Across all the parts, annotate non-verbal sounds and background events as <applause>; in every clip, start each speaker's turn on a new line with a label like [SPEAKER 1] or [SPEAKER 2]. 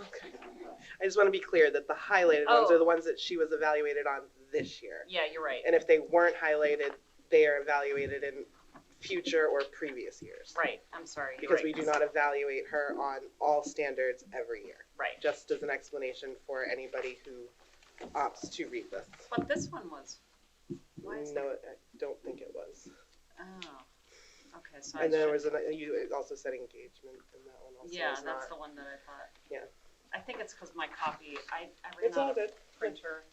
[SPEAKER 1] Okay. I just want to be clear that the highlighted ones
[SPEAKER 2] Oh.
[SPEAKER 1] are the ones that she was evaluated on this year.
[SPEAKER 2] Yeah, you're right.
[SPEAKER 1] And if they weren't highlighted, they are evaluated in future or previous years.
[SPEAKER 2] Right, I'm sorry. you're
[SPEAKER 1] Because we
[SPEAKER 2] right.
[SPEAKER 1] do not evaluate her on all standards every year.
[SPEAKER 2] Right.
[SPEAKER 1] Just as an explanation for anybody who opts to read this.
[SPEAKER 2] But this one was, why is
[SPEAKER 1] No,
[SPEAKER 2] that?
[SPEAKER 1] I don't think it was.
[SPEAKER 2] Oh, okay, so I
[SPEAKER 1] And then there
[SPEAKER 2] should-
[SPEAKER 1] was, an- you also said engagement and that one also
[SPEAKER 2] yeah,
[SPEAKER 1] was not.
[SPEAKER 2] that's the one that I thought.
[SPEAKER 1] Yeah.
[SPEAKER 2] I think it's because my copy, I, I ran
[SPEAKER 1] It's all
[SPEAKER 2] out of
[SPEAKER 1] good.
[SPEAKER 2] printer.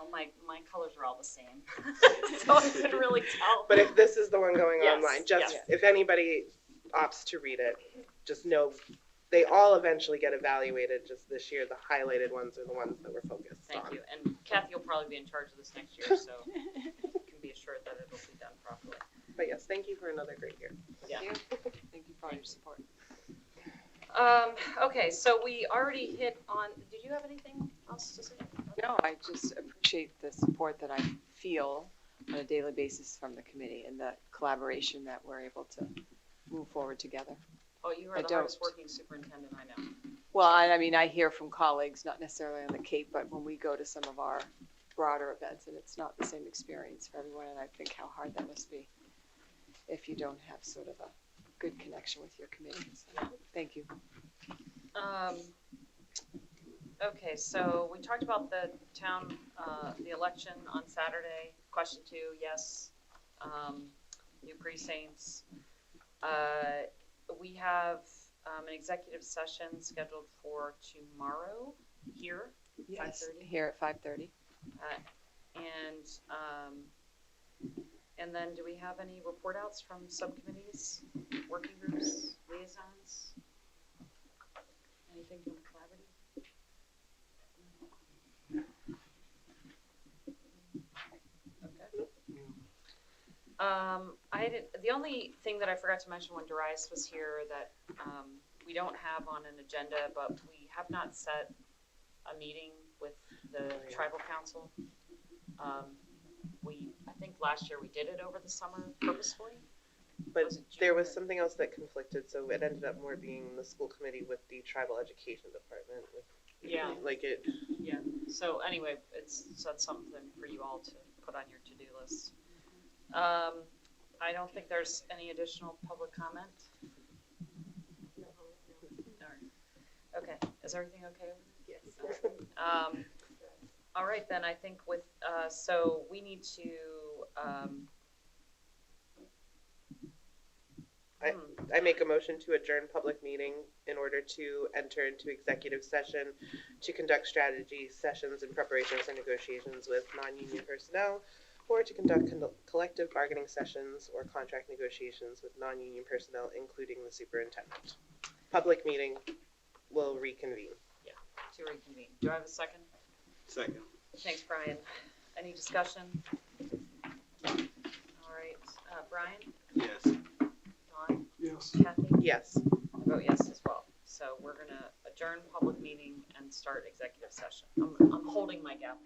[SPEAKER 2] All my, my colors are all the same. <laughs> So I
[SPEAKER 1] <laughs>
[SPEAKER 2] couldn't really tell.
[SPEAKER 1] But if this is the one going
[SPEAKER 2] Yes,
[SPEAKER 1] online, just
[SPEAKER 2] yes.
[SPEAKER 1] if anybody opts to read it, just know they all eventually get evaluated. Just this year, the highlighted ones are the ones that we're focused
[SPEAKER 2] Thank
[SPEAKER 1] on.
[SPEAKER 2] you. And Kathy will probably be in charge of this next year,
[SPEAKER 1] <laughs>
[SPEAKER 2] so you can be assured that it'll be done properly.
[SPEAKER 1] But yes, thank you for another great year.
[SPEAKER 3] Thank you for all your support.
[SPEAKER 2] Um, okay, so we already hit on, did you have anything else to say?
[SPEAKER 3] No, I just appreciate the support that I feel on a daily basis from the committee and the collaboration that we're able to move forward together.
[SPEAKER 2] Oh, you are
[SPEAKER 3] I
[SPEAKER 2] the
[SPEAKER 3] don't.
[SPEAKER 2] hardest working superintendent I know.
[SPEAKER 3] Well, I, I mean, I hear from colleagues, not necessarily on the Cape, but when we go to some of our broader events, and it's not the same experience for everyone, and I think how hard that must be if you don't have sort of a good connection with your committee. So, Thank you.
[SPEAKER 2] Um, okay, so we talked about the town, uh, the election on Saturday. Question two, yes. Um, new precincts. Uh, we have, um, an executive session scheduled for tomorrow here.
[SPEAKER 3] Yes,
[SPEAKER 2] 5:30?
[SPEAKER 3] Here at five thirty.
[SPEAKER 2] Uh, And, um, and then do we have any report outs from subcommittees, working groups, liaisons? Anything from the collaborative? Okay. Um, I did, the only thing that I forgot to mention when Darius was here that, um, we don't have on an agenda, but we have not set a meeting with the
[SPEAKER 1] yeah.
[SPEAKER 2] tribal council. Um, We, I think last year we did it over the summer purposefully.
[SPEAKER 1] But
[SPEAKER 2] Was it
[SPEAKER 1] there
[SPEAKER 2] June
[SPEAKER 1] was
[SPEAKER 2] or-
[SPEAKER 1] something else that conflicted, so it ended up more being the school committee with the tribal education department. with-
[SPEAKER 2] Yeah.
[SPEAKER 1] Like it,
[SPEAKER 2] Yeah, so anyway, it's, so that's something for you all to put on your to-do list. Um, I don't think there's any additional public comment. All right. Okay, is everything okay? Yes. Um, all right, then, I think with, uh, so we need to, um.
[SPEAKER 1] I-
[SPEAKER 2] hmm.
[SPEAKER 1] I make a motion to adjourn public meeting in order to enter into executive session to conduct strategy sessions in preparation for negotiations with non-union personnel or to conduct con- collective bargaining sessions or contract negotiations with non-union personnel, including the superintendent. Public meeting will reconvene.
[SPEAKER 2] to reconvene. Do I have a second?
[SPEAKER 4] Second.
[SPEAKER 2] Thanks, Brian. Any discussion? All right, uh, Brian,
[SPEAKER 4] Yes.
[SPEAKER 2] Dawn,
[SPEAKER 4] Yes.
[SPEAKER 2] Kathy,
[SPEAKER 1] Yes.
[SPEAKER 2] I vote yes as well. So we're gonna adjourn public meeting and start executive session. I'm, I'm holding my gap.